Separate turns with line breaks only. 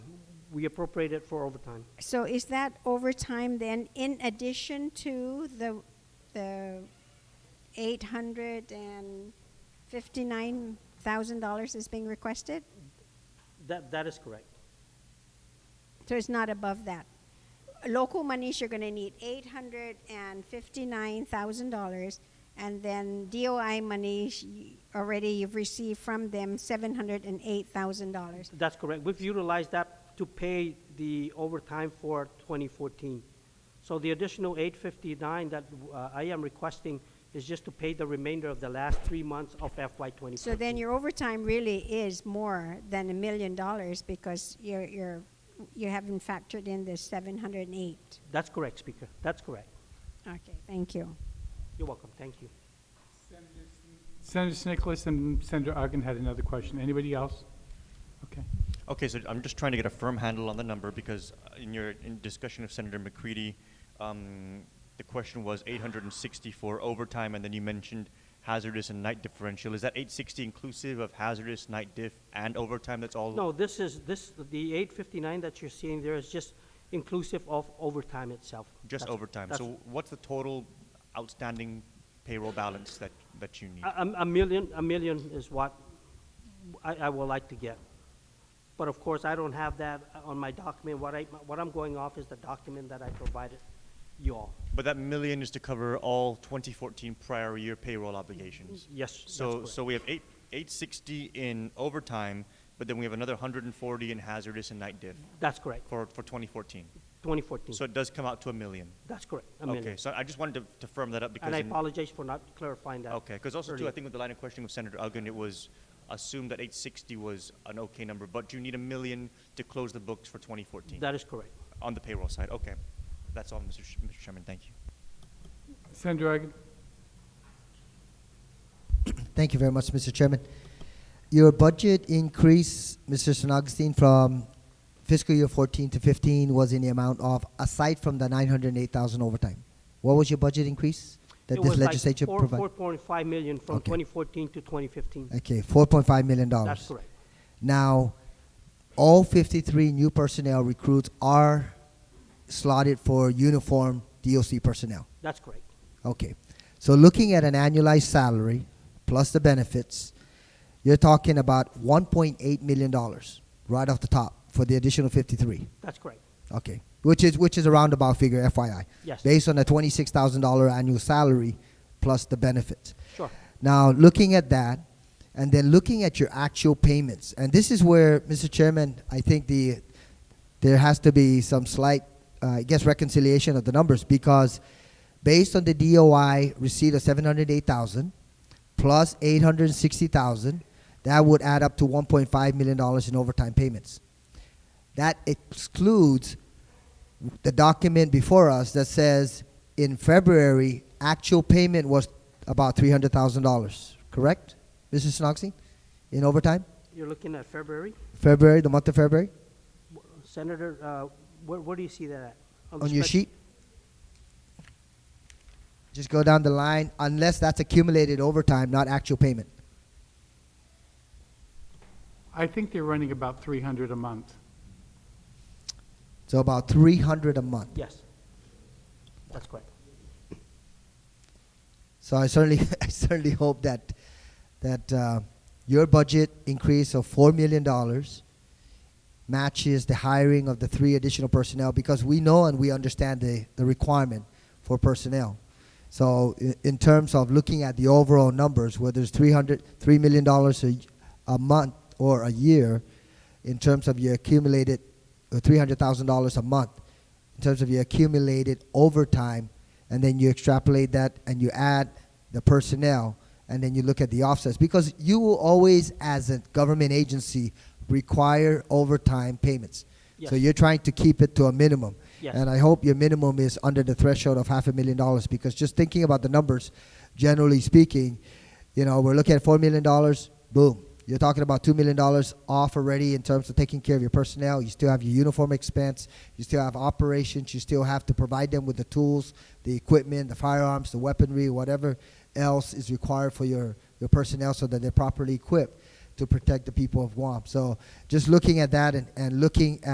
we appropriate it for overtime.
So is that overtime then in addition to the, the eight hundred and fifty-nine thousand dollars is being requested?
That, that is correct.
So it's not above that. Local monies, you're gonna need eight hundred and fifty-nine thousand dollars, and then DOI monies, y- already you've received from them seven hundred and eight thousand dollars.
That's correct. We've utilized that to pay the overtime for 2014. So the additional 859 that uh, I am requesting is just to pay the remainder of the last three months of FY 2014.
So then your overtime really is more than a million dollars because you're, you're, you haven't factored in the seven hundred and eight.
That's correct, Speaker. That's correct.
Okay, thank you.
You're welcome. Thank you.
Senator Nicholas and Senator Ogden had another question. Anybody else? Okay.
Okay, so I'm just trying to get a firm handle on the number because uh, in your in discussion of Senator McCready, um, the question was 860 for overtime, and then you mentioned hazardous and night differential. Is that 860 inclusive of hazardous, night diff, and overtime? That's all.
No, this is, this, the 859 that you're seeing there is just inclusive of overtime itself.
just
That's-
overtime.
that's-
So what's the total outstanding payroll balance that that you need?
A, a- a million, a million is what I, I would like to get. But of course, I don't have that on my document. What I, what I'm going off is the document that I provided you all.
but that million is to cover all 2014 prior year payroll obligations.
Yes, that's
So,
correct.
so we have eight, eight sixty in overtime, but then we have another hundred and forty in hazardous and night diff
That's correct,
for, for twenty fourteen.
2014.
So it does come out to a million.
That's correct, Mm-hmm. a
Okay,
million.
so I just wanted to, to firm that up because.
And I
in-
apologize for not clarifying that.
Okay, because also too,
earlier.
I think with the line of questioning with Senator Uggan, it was assumed that eight sixty was an okay number, but you need a million to close the books for twenty fourteen
That is correct.
on the payroll side. Okay, that's all, Mr. Sh- Mr. Chairman, thank you.
Senator Ogden?
Thank you very much, Mr. Chairman. Your budget increase, Mr. San Augustine, from fiscal year 14 to 15 was in the amount of, aside from the 908,000 overtime. What was your budget increase that
It
this
was like
legislature
four-
provided?
4.5 million from
Okay.
2014 to 2015.
okay, 4.5 million dollars.
That's correct.
Now, all 53 new personnel recruits are slotted for uniform DOC personnel.
That's correct.
Okay. So looking at an annualized salary plus the benefits, you're talking about $1.8 million right off the top for the additional 53.
That's correct.
Okay. Which is which is a roundabout figure, FYI.
Yes.
Based on a $26,000 annual salary plus the benefits.
Sure.
Now, looking at that, and then looking at your actual payments, and this is where, Mr. Chairman, I think the there has to be some slight, uh, I guess, reconciliation of the numbers because based on the DOI receipt of seven hundred eight thousand plus eight hundred sixty thousand, that would add up to one point five million dollars in overtime payments. That excludes the document before us that says in February, actual payment was about $300,000, correct, Mrs. Snoxy? In overtime?
You're looking at February?
February, the month of February?
Senator, uh, where, where do you see that at? the
on your
spec-
sheet? Just go down the line, unless that's accumulated overtime, not actual payment.
I think they're running about 300 a month.
So about 300 a month.
Yes. That's correct.
So I certainly, I certainly hope that that uh, your budget increase of four million dollars matches the hiring of the three additional personnel because we know and we understand the, the requirement for personnel. So in, in terms of looking at the overall numbers, whether it's 300, $3 million dollars a, a month or a year, in terms of your accumulated uh, $300,000 a month, in terms of your accumulated overtime, and then you extrapolate that and you add the personnel, and then you look at the offsets. Because you will always, as a government agency, require overtime payments. So
Yes.
you're trying to keep it to a minimum.
Yes.
And I hope your minimum is under the threshold of half a million dollars because just thinking about the numbers, generally speaking, you know, we're looking at $4 million, boom. You're talking about $2 million off already in terms of taking care of your personnel. You still have your uniform expense. You still have operations. You still have to provide them with the tools, the equipment, the firearms, the weaponry, whatever else is required for your, your personnel so that they're properly equipped to protect the people of Guam. So just looking at that and, and looking at